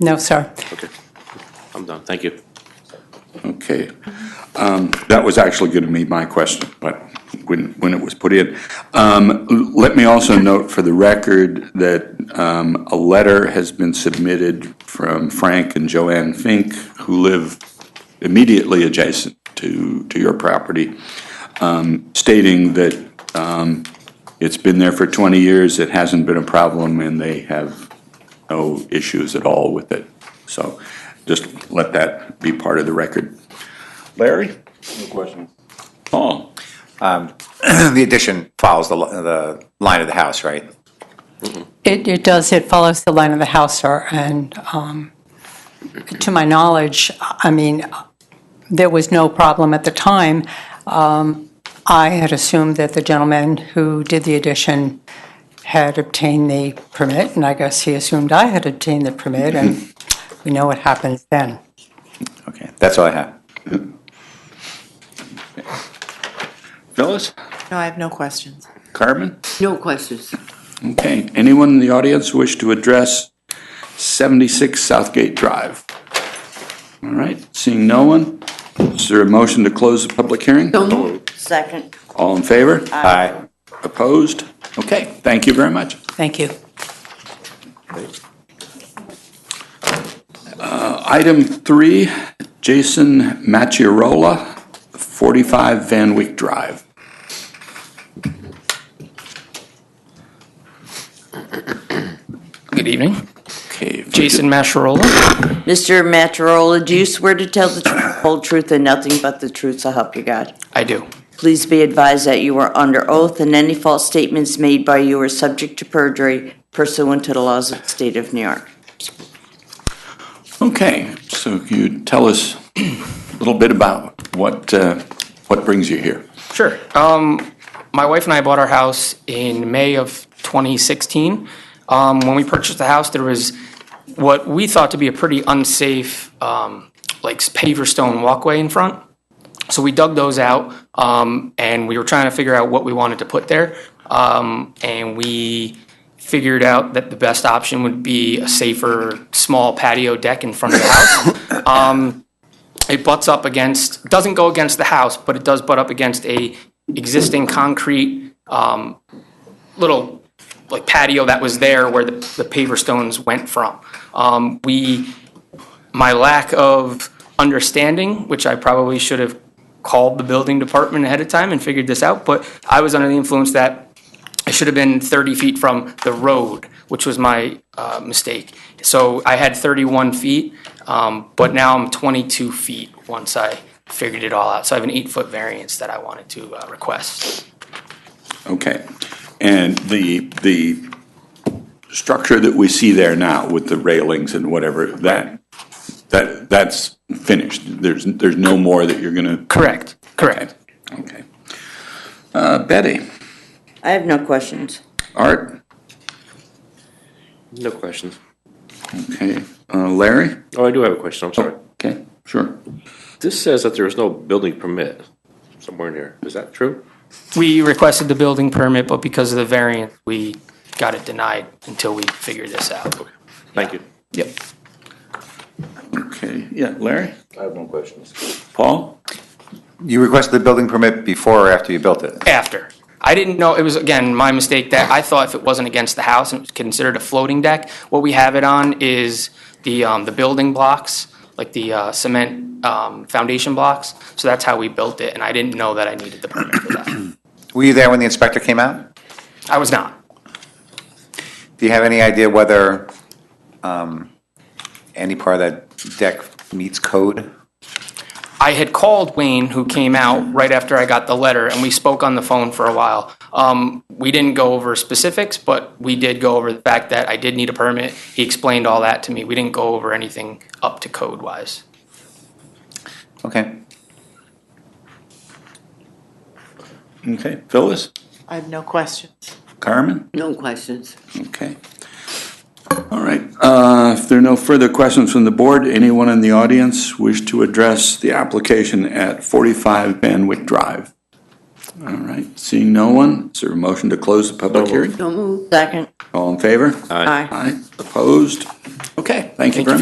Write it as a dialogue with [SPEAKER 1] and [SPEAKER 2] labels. [SPEAKER 1] No, sir.
[SPEAKER 2] Okay. I'm done. Thank you.
[SPEAKER 3] Okay. Um, That was actually going to be my question, but when, when it was put in. Um, l- Let me also note for the record that um, a letter has been submitted from Frank and Joanne Fink, who live immediately adjacent to, to your property, um, stating that um, it's been there for 20 years, it hasn't been a problem, and they have no issues at all with it. So just let that be part of the record. Larry?
[SPEAKER 4] No question.
[SPEAKER 3] Paul?
[SPEAKER 4] The addition follows the, li- the line of the house, right?
[SPEAKER 1] It, it does, it follows the line of the house, sir, and um, to my knowledge, I mean, there was no problem at the time. Um, I had assumed that the gentleman who did the addition had obtained the permit, and I guess he assumed I had obtained the permit, and we know what happens then.
[SPEAKER 4] Okay, that's all I have.
[SPEAKER 3] Phyllis?
[SPEAKER 5] No, I have no questions.
[SPEAKER 3] Carmen?
[SPEAKER 6] No questions.
[SPEAKER 3] Okay. Anyone in the audience wish to address 76 Southgate Drive? All right, seeing no one, is there a motion to close the public hearing?
[SPEAKER 6] So moved. Second.
[SPEAKER 3] All in favor?
[SPEAKER 4] Aye.
[SPEAKER 3] Opposed? Okay, thank you very much.
[SPEAKER 1] Thank you.
[SPEAKER 3] Item three, Jason Macchiarola, 45 Van Wyck Drive.
[SPEAKER 7] Good evening.
[SPEAKER 3] Okay. if we
[SPEAKER 7] Jason Masharola.
[SPEAKER 6] Mr. Matarola, do you swear to tell the tr- whole truth and nothing but the truth so help you God?
[SPEAKER 7] I do.
[SPEAKER 6] Please be advised that you are under oath and any false statements made by you are subject to perjury pursuant to the laws of the state of New York.
[SPEAKER 3] could- Okay, so can you tell us a little bit about what, uh, what brings you here?
[SPEAKER 7] Sure. Um, my wife and I bought our house in May of 2016. Um, when we purchased the house, there was what we thought to be a pretty unsafe, um, like paver stone walkway in front. So we dug those out, um, and we were trying to figure out what we wanted to put there. Um, and we figured out that the best option would be a safer, small patio deck in front of the house. it butts up against, doesn't go against the house, but it does butt up against a existing concrete um, little like patio that was there where the, the paver stones went from. Um, we, my lack of understanding, which I probably should have called the building department ahead of time and figured this out, but I was under the influence that I should have been 30 feet from the road, which was my uh, mistake. So I had 31 feet, um, but now I'm 22 feet once I figured it all out. So I have an eight-foot variance that I wanted to uh, request.
[SPEAKER 3] Okay, and the, the structure that we see there now with the railings and whatever, that, that, that's finished? There's, there's no more that you're gonna?
[SPEAKER 7] Correct, correct.
[SPEAKER 3] Okay. Uh, Betty,
[SPEAKER 6] I have no questions.
[SPEAKER 3] Art,
[SPEAKER 2] No questions.
[SPEAKER 3] okay, uh, Larry?
[SPEAKER 2] Oh, I do have a question. I'm sorry.
[SPEAKER 3] Okay, sure.
[SPEAKER 2] This says that there is no building permit somewhere in here. Is that true?
[SPEAKER 7] We requested the building permit, but because of the variance, we got it denied until we figured this out.
[SPEAKER 2] Thank you.
[SPEAKER 7] Yep.
[SPEAKER 3] Okay, yeah, Larry?
[SPEAKER 4] I have no questions.
[SPEAKER 3] Paul?
[SPEAKER 4] You requested the building permit before or after you built it?
[SPEAKER 7] After. I didn't know, it was, again, my mistake that I thought if it wasn't against the house and it was considered a floating deck, what we have it on is the, um, the building blocks, like the, uh, cement, um, foundation blocks. So that's how we built it, and I didn't know that I needed the permit for that.
[SPEAKER 4] Were you there when the inspector came out?
[SPEAKER 7] I was not.
[SPEAKER 4] Do you have any idea whether um, any part of that deck meets code?
[SPEAKER 7] I had called Wayne, who came out right after I got the letter, and we spoke on the phone for a while. Um, we didn't go over specifics, but we did go over the fact that I did need a permit. He explained all that to me. We didn't go over anything up to code wise.
[SPEAKER 4] Okay.
[SPEAKER 3] Okay, Phyllis?
[SPEAKER 5] I have no questions.
[SPEAKER 3] Carmen?
[SPEAKER 6] No questions.
[SPEAKER 3] Okay. All right, uh, if there are no further questions from the board, anyone in the audience wish to address the application at 45 Van Wyck Drive? All right, seeing no one, is there a motion to close the public
[SPEAKER 2] No move.
[SPEAKER 3] hearing?
[SPEAKER 6] So moved. Second.
[SPEAKER 3] All in favor?
[SPEAKER 2] Aye.
[SPEAKER 3] Aye, opposed? Okay, thank you very
[SPEAKER 7] Thank you
[SPEAKER 3] much.